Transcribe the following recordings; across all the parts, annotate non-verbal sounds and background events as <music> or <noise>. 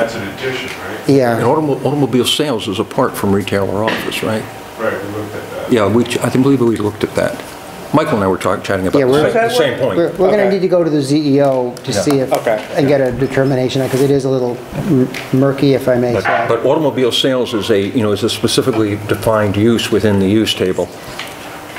That's an addition, right? Yeah, And automo- automobile sales is apart from retail or office, right? Right, we looked at that. Yeah, we, ch- I think, believe we looked at that. Michael and I were talk- chatting about Yeah, the we're- same- the same we're, point. we're gonna Okay. need to go to the ZEO to Yeah. see if, Okay. and get a determination, because it is a little m- murky, if I may But say. but automobile sales is a, you know, is a specifically defined use within the use table.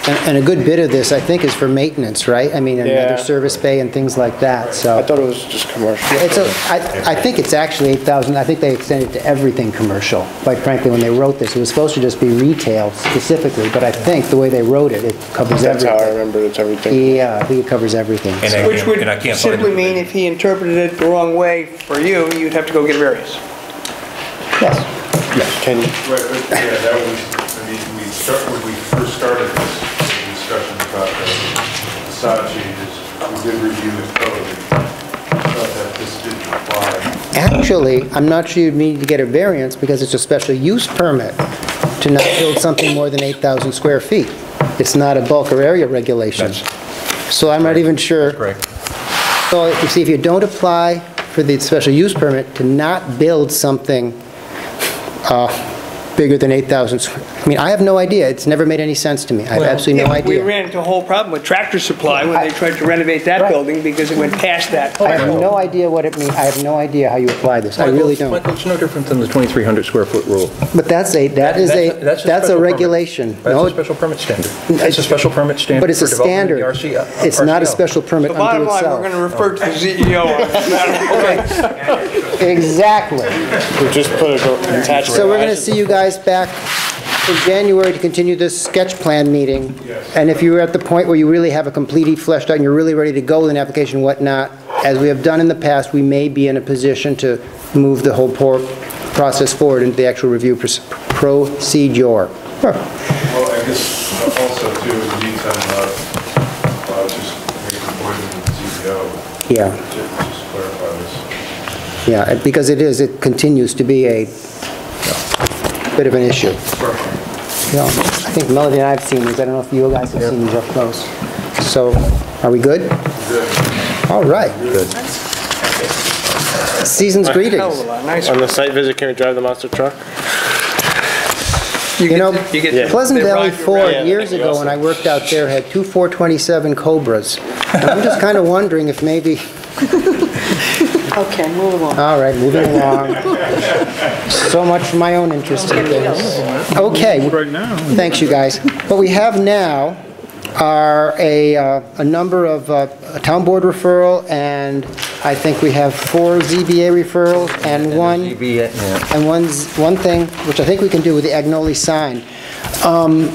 And and a good bit of this, I think, is for maintenance, right? I mean, Yeah. another service bay and things like that, I so. thought it was just commercial. It's a, I, I think it's actually 8,000, I think they extended it to everything commercial, quite frankly, when they wrote this. It was supposed to just be retail specifically, but I think the way they wrote it, it covers That's how I everything. remember, it's everything. Yeah, I think it covers everything. And I- Which would and I can't find simply it. mean if he interpreted it the wrong way for you, you'd have to go get a variance. Yes. Can, Right, but yeah, that was, I mean, we start, when we first started this discussion about the facade changes, we did review the code and thought that this didn't apply. Actually, I'm not sure you'd need to get a variance because it's a special use permit to not build something more than 8,000 square feet. It's not a bulk or area regulation. So I'm not even sure. Correct. So you see, if you don't apply for the special use permit to not build something uh, bigger than 8,000, square- I mean, I have no idea. It's never made any sense to me. I have absolutely no Yeah, We idea. ran into a whole problem with Tractor Supply when I- they tried to renovate that building because it went past that. I have no idea what it means. I have no idea how you apply this. I really don't. Michael, it's no different than the 2,300 square foot rule. But that's a, that is a, that's special a permit. regulation. No, That's a special permit standard. That's a it's- special permit standard. but it's a for development in standard. the RC uh, It's not a RCO. special permit The bottom unto line, we're going to itself. Oh. refer to the <laughs> CEO on this matter. Exactly. we just put a gar- attached garage. So we're going to see you guys back in January to continue this sketch plan meeting. And if you're at the point where you really have a completely fleshed out and you're really ready to go with an application and whatnot, as we have done in the past, we may be in a position to move the whole por- process forward into the actual review proce- procedure. Well, I guess uh, also too, in the meantime, uh, uh, just make an appointment with CEO Yeah, to just clarify this. yeah, because it is, it continues to be a bit of an issue. Yeah, I think Melody and I have seen these, I don't know if you guys have seen these up close. So, are we good? All right. Season's Hell of a greetings. lot nicer. On the site visit, can we drive the monster truck? You know, You get to- Pleasant they ride Valley you around. Ford, Yeah, years that'd be ago, when I worked out there, had two 427 Cobras. And I'm just kind of wondering if maybe, Okay, move along. all right, moving along. So much for my own interest in things. Okay. Right now. Thanks, you guys. What we have now are a, uh, a number of uh, a town board referral, and I think we have four ZBA referrals and one... ZBA, yeah. And one's, one thing, which I think we can do with the Agnoli sign. Um,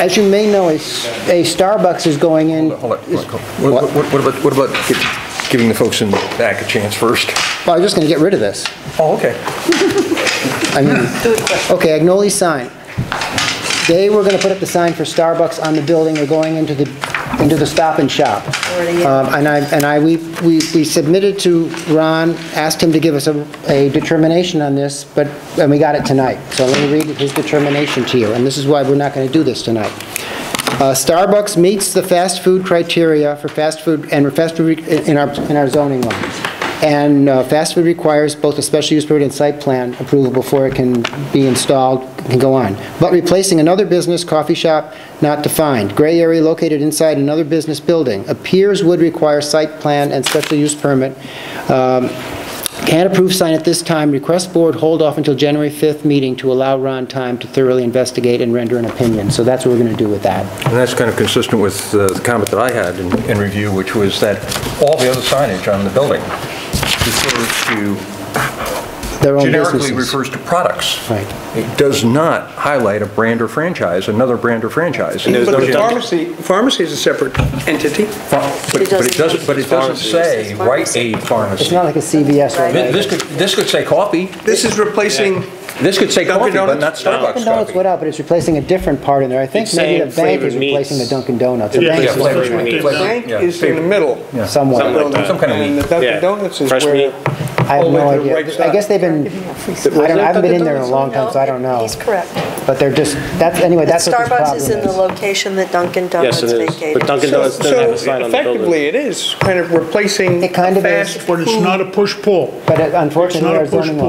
As you may know, a s- a Starbucks is going in. Hold on, is- Michael. What What? what- what about, what about gi- giving the folks in the back a chance first? Well, I'm just going to get rid of this. Oh, okay. I mean, okay, Agnoli sign. They were going to put up the sign for Starbucks on the building, they're going into the, into the Stop and Shop. Already, yeah. Um, And I, and I, we, we we submitted to Ron, asked him to give us a, a determination on this, but, and we got it tonight. So let me read his determination to you, and this is why we're not going to do this tonight. Uh, Starbucks meets the fast food criteria for fast food, and fast food re- in our, in our zoning law. And uh, fast food requires both a special use permit and site plan approval before it can be installed, can go on. But replacing another business, coffee shop, not defined, gray area located inside another business building, appears would require site plan and special use permit. Um, Can't approve sign at this time, request board hold off until January 5th meeting to allow Ron time to thoroughly investigate and render an opinion. So that's what we're going to do with that. And that's kind of consistent with uh, the comment that I had in in review, which was that all the other signage on the building refers to, Their own generically businesses. refers to products. Right. It does not highlight a brand or franchise, another brand or franchise. And there's But no the gen- pharmacy, pharmacy is a separate entity. But but it doesn't, but it doesn't say right aid It's pharmacy. not like a CVS or Thi- a... This could, this could say coffee, This is replacing, this could say coffee, but Dunkin' not Donuts? Starbucks Dunkin' Donuts coffee. went out, but it's replacing a different part in there. I think It's maybe the saying bank is flavored meats. replacing the Dunkin' Donuts. The Yeah, bank Yeah, is flavored replacing meats. the bank Yeah. is in the middle. Yeah. Somewhat. Something like building, Some kind of And meat. the Dunkin' Donuts is Fresh where meat. I have all the way no to the right idea. I side. guess they've been, I don't, I haven't been in there in a long time, so I don't know. He's correct. But they're just, that's, anyway, that's what this Starbucks problem is in the location that Dunkin' Donuts Yes, it is. vacated. But Dunkin' Donuts doesn't have So a sign on the building. effectively, it is kind of replacing It kind a of is. fast But it's not a push-pull. But uh, unfortunately, It's not a our zoning law- push-pull.